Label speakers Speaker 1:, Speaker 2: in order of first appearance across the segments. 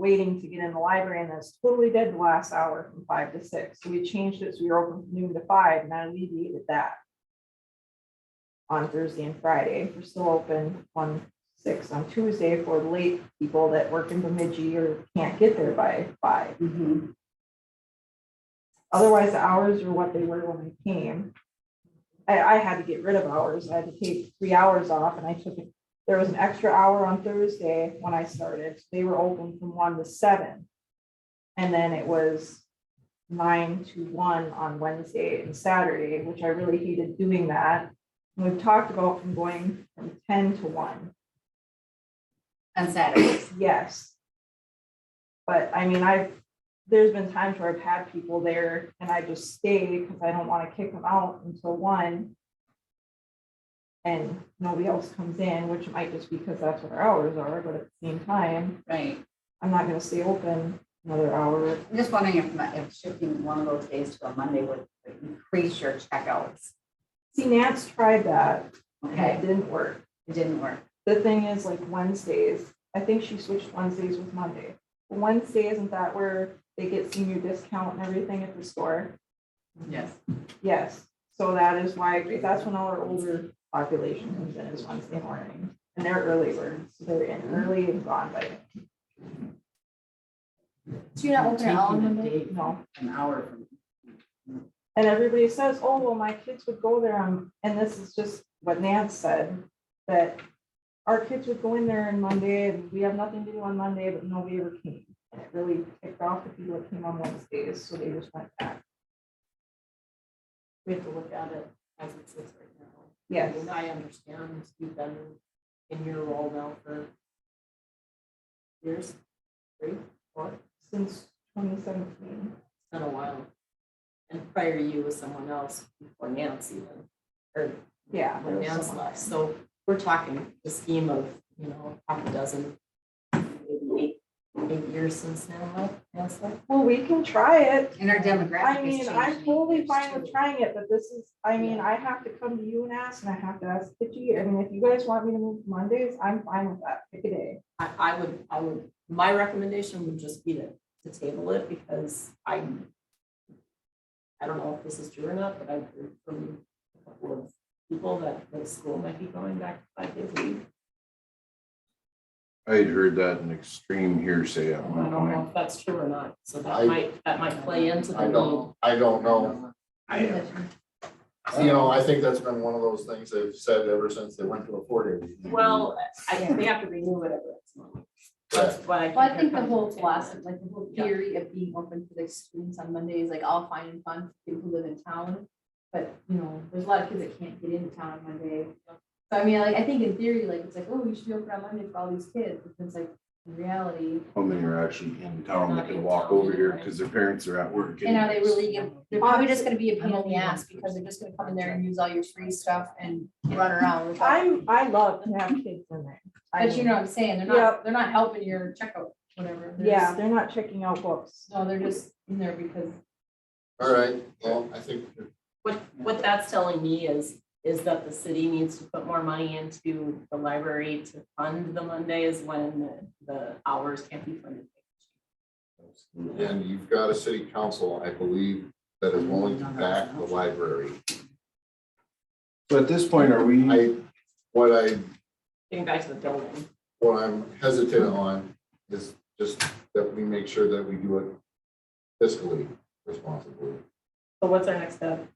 Speaker 1: waiting to get in the library and that's totally dead the last hour from five to six. So we changed it, so we were open from noon to five and that alleviated that. On Thursday and Friday, we're still open on six on Tuesday for the late people that work in Bemidji or can't get there by five.
Speaker 2: Mhm.
Speaker 1: Otherwise, the hours are what they were when I came. I, I had to get rid of hours. I had to take three hours off and I took, it. there was an extra hour on Thursday when I started. They were open from one to seven. And then it was nine to one on Wednesday and Saturday, which I really hated doing that. And We've talked about from going from ten to one.
Speaker 2: On Saturdays.
Speaker 1: Yes. But I mean, I've, there's been times where I've had people there and I just stay because I don't want to kick them out until one. And nobody else comes in, which might just be because that's what our hours are, but at the same time,
Speaker 2: Right.
Speaker 1: I'm not gonna stay open another hour.
Speaker 2: I'm just wondering if, my- if shifting one of those days to a Monday would increase your checkouts.
Speaker 1: See, Nance tried that and it
Speaker 2: Okay,
Speaker 1: didn't work.
Speaker 2: it didn't work.
Speaker 1: The thing is like Wednesdays, I think she switched Wednesdays with Monday. Wednesday, isn't that where they get senior discount and everything at the store?
Speaker 2: Yes.
Speaker 1: Yes, so that is why, that's when all our older population comes in is Wednesday morning, and they're early birds, so they're in early and gone by,
Speaker 2: Do you not open at all on Monday?
Speaker 1: you know.
Speaker 2: An hour from.
Speaker 1: And everybody says, oh, well, my kids would go there, on and this is just what Nance said, that our kids would go in there on Monday, and we have nothing to do on Monday, but nobody ever came. And it really kicked off the people that came on Wednesdays, so they just went back,
Speaker 3: we have to look at it as it sits right now.
Speaker 1: yes.
Speaker 3: And I understand you've been in your role now for years, three, four, it's
Speaker 1: Since twenty seventeen,
Speaker 3: been a while. And prior you was someone else before Nancy even, or
Speaker 1: yeah. there
Speaker 3: when
Speaker 1: was
Speaker 3: Nancy
Speaker 1: someone
Speaker 3: left.
Speaker 1: there.
Speaker 3: So we're talking the scheme of, you know, half a dozen, maybe eight, eight years since now, right, Nancy?
Speaker 1: Well, we can try it.
Speaker 2: And our
Speaker 1: I
Speaker 2: demographic is
Speaker 1: mean,
Speaker 2: changing.
Speaker 1: I'm totally fine with
Speaker 2: too.
Speaker 1: trying it, but this is, I mean, I have to come to you and ask, and I have to ask Kitchy, I mean, if you guys want me to move Mondays, I'm fine with that, pick a day.
Speaker 3: I, I would, I would, my recommendation would just be to, to table it because I, I don't know if this is true or not, but I've heard from a couple of people that the school might be going back to five days a week.
Speaker 4: I had heard that in extreme hearsay
Speaker 3: I
Speaker 4: at one
Speaker 3: don't know
Speaker 4: point.
Speaker 3: if that's true or not, so
Speaker 5: I-
Speaker 3: that might, that might play into the
Speaker 5: I
Speaker 3: need.
Speaker 5: don't, I don't know. I, you know, I think that's been one of those things they've said ever since they went to a four day.
Speaker 3: Well, I, they have to renew it every X month. That's what I.
Speaker 6: Well, I think the whole
Speaker 3: Yeah.
Speaker 6: philosophy, like the whole
Speaker 3: Yeah.
Speaker 6: theory of being open for the students on Monday is like all fine and fun for people who live in town. But, you know, there's a lot of kids that can't get into town on Monday. So I mean, like, I think in theory, like, it's like, oh, you should be open on Monday for all these kids, but it's like, in reality,
Speaker 4: How many are actually in town that can walk over here because their parents are at work?
Speaker 6: and are they really, gonna- they're probably just gonna be a pain in the ass because they're just gonna come in there and use all your free stuff and run around. without-
Speaker 1: I'm, I love to have kids in there. I
Speaker 6: But you
Speaker 1: mean,
Speaker 6: know what I'm saying, they're
Speaker 1: Yeah.
Speaker 6: not, they're not helping your checkout, whatever. They're
Speaker 1: Yeah,
Speaker 6: just-
Speaker 1: they're not checking out books.
Speaker 6: No, they're just in there because
Speaker 5: All right, well, I think
Speaker 3: What, what that's telling me is, is that the city needs to put more money into the library to fund the Mondays when the- the hours can't be funded.
Speaker 5: And you've got a city council, I believe, that is willing to back the library.
Speaker 4: So at this point, are we,
Speaker 5: I, what I,
Speaker 3: Getting back to the building.
Speaker 5: what I'm hesitant on is just that we make sure that we do it fiscally responsibly.
Speaker 3: So what's our next step?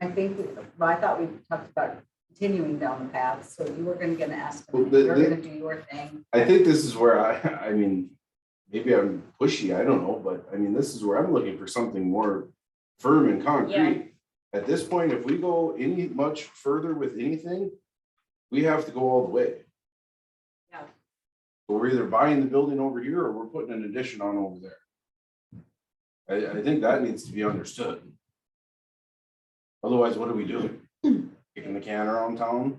Speaker 2: I think, we- well, I thought we talked about continuing down the path, so you were gonna, gonna ask,
Speaker 4: Well,
Speaker 2: them,
Speaker 4: the-
Speaker 2: you're
Speaker 4: the-
Speaker 2: gonna do your thing.
Speaker 4: I think this is where I, I mean, maybe I'm pushy, I don't know, but I mean, this is where I'm looking for something more firm and concrete. At this point, if we go any much further with anything, we have to go all the way.
Speaker 3: Yeah.
Speaker 4: We're either buying the building over here or we're putting an addition on over there. I, I think that needs to be understood. Otherwise, what are we doing? Kicking the can around town?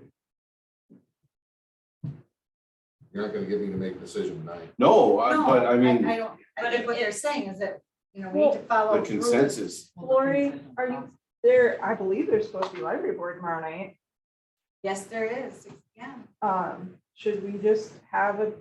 Speaker 5: You're not gonna get me to make a decision tonight.
Speaker 4: No, I-
Speaker 2: No,
Speaker 4: but I mean,
Speaker 2: I don't, I
Speaker 3: but
Speaker 2: think
Speaker 3: if
Speaker 2: what they're
Speaker 3: it-
Speaker 2: saying is that, you know, we need to follow.
Speaker 4: the
Speaker 2: rules.
Speaker 4: consensus
Speaker 1: Lori, are you there? I believe there's supposed to be library board tomorrow night.
Speaker 2: Yes, there is, yeah.
Speaker 1: Um, should we just have a